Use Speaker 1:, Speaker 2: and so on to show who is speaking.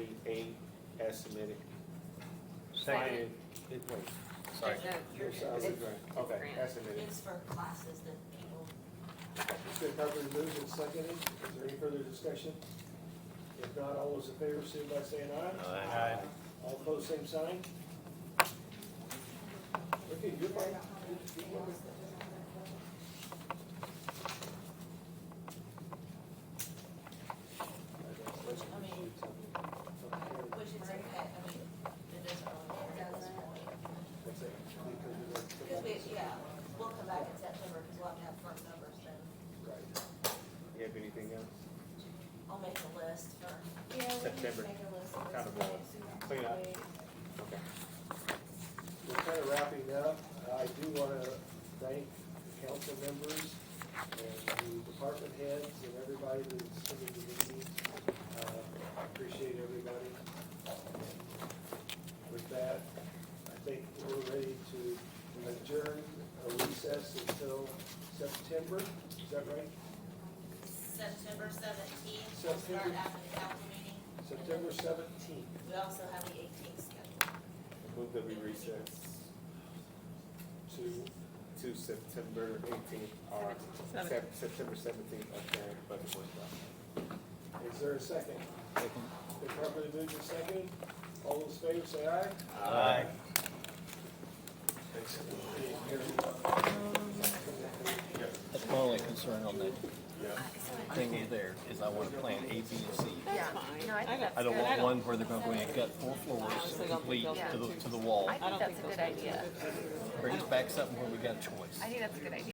Speaker 1: eight as submitted.
Speaker 2: Second.
Speaker 1: Fin- it- wait,
Speaker 2: Sorry.
Speaker 3: No, you're
Speaker 1: I'm sorry,
Speaker 3: good.
Speaker 1: grant. Okay, as submitted.
Speaker 4: It's for classes that people,
Speaker 5: It's been properly moved and seconded. Is there any further discussion? If not, all those in favor, signify by saying aye.
Speaker 2: Aye.
Speaker 5: All opposed, same sign. Okay, you're fine. You're- you're welcome.
Speaker 4: which, I mean, which is okay, I mean, it doesn't really matter at this point.
Speaker 5: What's that?
Speaker 4: Because we, yeah, we'll come back in September, because we'll have to have front numbers, then
Speaker 5: Right.
Speaker 1: You have anything else?
Speaker 4: I'll make a list for,
Speaker 6: Yeah, we can just
Speaker 1: September.
Speaker 6: make a list of
Speaker 1: Kind of rolling.
Speaker 6: this.
Speaker 1: Clean up. Okay.
Speaker 5: We're kind of wrapping up. Uh, I do want to thank the council members and the department heads and everybody that's coming to the meeting. Uh, I Appreciate everybody. With that, I think we're ready to adjourn a recess until September. Is that right?
Speaker 4: September seventeenth, we'll start
Speaker 5: September-
Speaker 4: after the council meeting. and then
Speaker 5: September seventeenth.
Speaker 4: We also have the eighteenth scheduled.
Speaker 1: Move that we recess
Speaker 5: to
Speaker 1: to September eighteenth or Sep- September seventeenth, okay, budget workshop.
Speaker 5: Is there a second? They properly moved and seconded. All those in favor say aye.
Speaker 2: Aye.
Speaker 7: That's my only concern on that thing over there, is I wanna plan A, B, and C.
Speaker 8: That's fine. No, I think that's
Speaker 7: I don't
Speaker 8: good.
Speaker 7: want one where they're gonna go in and gut four floors complete to the, to the wall.
Speaker 8: I think that's a good idea.
Speaker 7: Bring us back something where we got a choice.
Speaker 8: I think that's a good idea.